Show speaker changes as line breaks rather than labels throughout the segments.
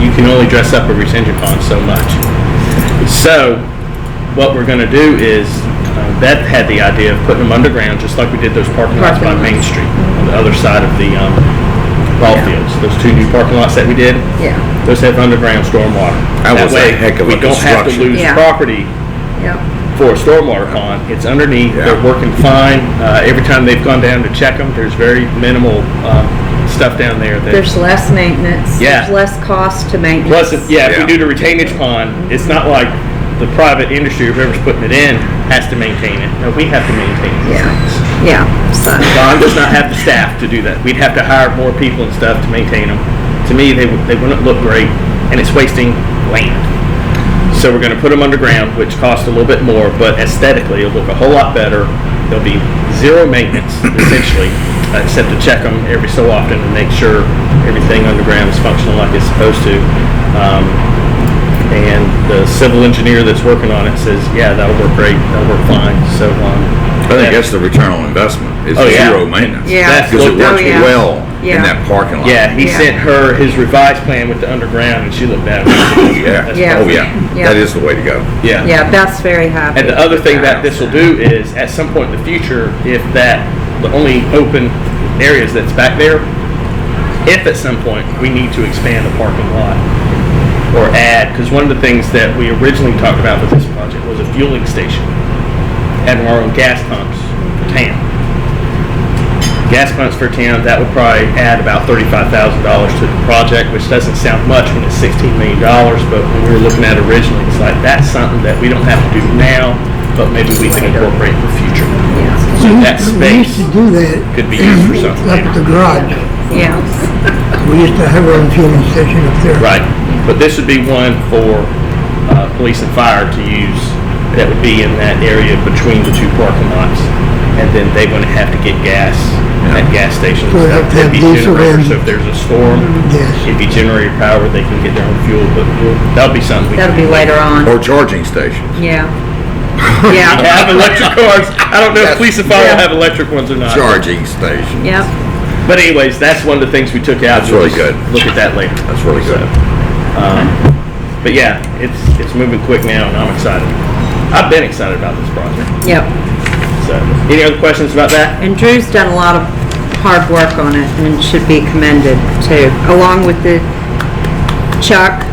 you can only dress up a retention pond so much. So, what we're going to do is, uh, Beth had the idea of putting them underground, just like we did those parking lots by
Parking
Main Street, on the other side of the um, ball fields. Those two new parking lots that we did,
Yeah,
those have underground stormwater.
That was a
way,
heck of a
We don't have to
construction.
lose
Yeah.
property
yeah,
for a stormwater pond. It's underneath, they're
Yeah.
working fine. Uh, every time they've gone down to check them, there's very minimal, um, stuff down there that.
there's less maintenance,
Yeah.
there's less cost to maintenance.
Plus, if- yeah, if we
Yeah.
do the retainage pond, it's not like the private industry, whoever's putting it in, has to maintain it. No, we have to maintain it.
Yeah, yeah, so,
Don does not have the staff to do that. We'd have to hire more people and stuff to maintain them. To me, they, would- they wouldn't look great, and it's wasting land. So we're gonna put them underground, which costs a little bit more, but aesthetically, it'll look a whole lot better. There'll be zero maintenance essentially, uh, except to check them every so often and make sure everything underground is functional like it's supposed to. Um, and the civil engineer that's working on it says, yeah, that'll work great, that'll work fine, so, um.
I think that's the return on investment, is
Oh, yeah.
zero maintenance.
Yeah.
That's
Because it
looked at-
works
Oh, yeah.
well
Yeah.
in that parking lot.
Yeah, he
Yeah.
sent her his revised plan with the underground, and she looked at it.
Yeah,
Yeah.
oh, yeah,
Yeah.
that is the way to go.
yeah, Beth's very happy.
And uh, the other thing that this will do is, at some point in the future, if that, the only open areas that's back there, if at some point we need to expand the parking lot or add, because one of the things that we originally talked about with this project was a fueling station, having our own gas pumps for town. Gas pumps for town, that would probably add about thirty-five thousand dollars to the project, which doesn't sound much when it's sixteen million dollars, but when we were looking at it originally, it's like, that's something that we don't have to do now, but maybe we can incorporate in the future.
Yeah,
So that
We
space
used to do that
could be used for something
up
later.
at the garage.
yeah,
We used to have our own fueling station up there.
Right, but this would be one for uh, police and fire to use that would be in that area between the two parking lots. And then they wouldn't have to get gas at gas stations.
So they'd have to have
It'd be
diesel
generators,
and- Mm-hmm.
So if there's a storm,
Yes.
it'd be generator power, they can get their own fuel, but we'll- that'll be something. we
that'll be
can-
later on,
Or charging stations.
yeah.
We
Yeah,
have electric cars. I don't know if
That's-
police and fire
Yeah.
have electric ones or not.
Charging stations.
yeah,
But anyways, that's one of the things we took out.
That's really
We'll
good.
Look at that later.
That's really good.
Um, But yeah, it's, it's moving quick now and I'm excited. I've been excited about this project.
yeah.
So, any other questions about that?
And Drew's done a lot of hard work on it and should be commended too, along with the Chuck,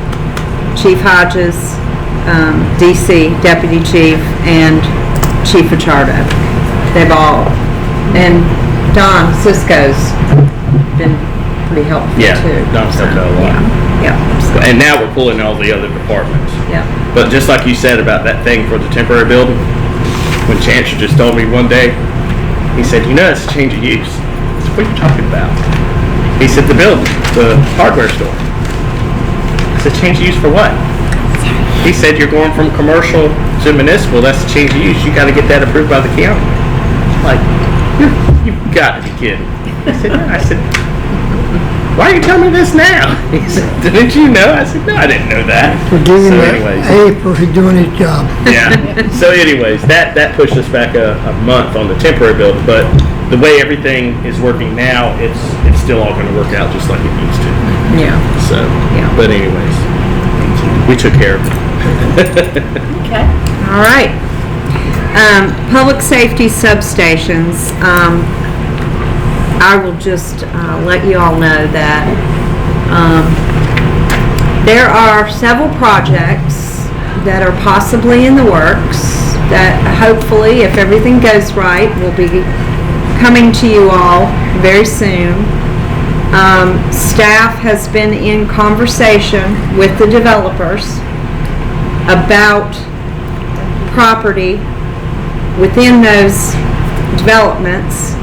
Chief Hodges, um, DC Deputy Chief, and Chief Richardo. They've all, and Don Cisco's been pretty helpful
Yeah,
too.
Don's helped out a lot.
Yeah, yeah,
And now we're pulling all the other departments.
yeah,
But just like you said about that thing for the temporary building, when Chancellor just told me one day, he said, you know, it's a change of use. I said, what are you talking about? He said, the building, the hardware store. I said, change of use for what? He said, you're going from commercial to municipal, that's a change of use. You gotta get that approved by the county. I'm Like, "You- you've got to be kidding. I said, no. I said, why are you telling me this now? He said, didn't you know? I said, no, I didn't know that.
For giving
So
that
anyways.
A for doing his job.
Yeah. So anyways, that, that pushed us back a, a month on the temporary build, but the way everything is working now, it's, it's still all gonna work out just like it needs to,
yeah.
so.
Yeah.
But anyways, we took care of it.
All right. Um, Public safety substations, um, I will just uh, let you all know that um, there are several projects that are possibly in the works that hopefully, if everything goes right, will be coming to you all very soon. Um, Staff has been in conversation with the developers about property within those developments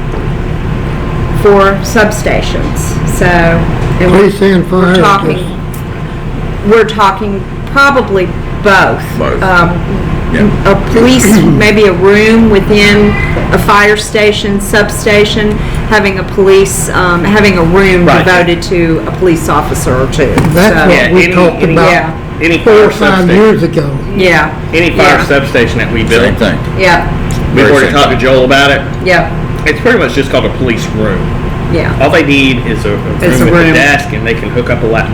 for substations, so. and we're-
Police and
we're
fire.
talking,
just-
we're talking probably both.
Both.
Um,
Yeah.
a police, maybe a room within a fire station, substation, having a police, um, having a room
Right.
devoted to a police officer or two.
That's
So,
what we
any-
talked
any-
Yeah.
about
Any
four
fire
or five years
substation,
ago.
Yeah,
any fire
Yeah.
substation that we
Same
built,
thing.
yeah,
we've
Very
already
same
talked to
thing.
Joel about it.
yeah,
It's pretty much just called a police room.
yeah.
All they need is a a room
It's a
with a
room.
desk and they can hook up a laptop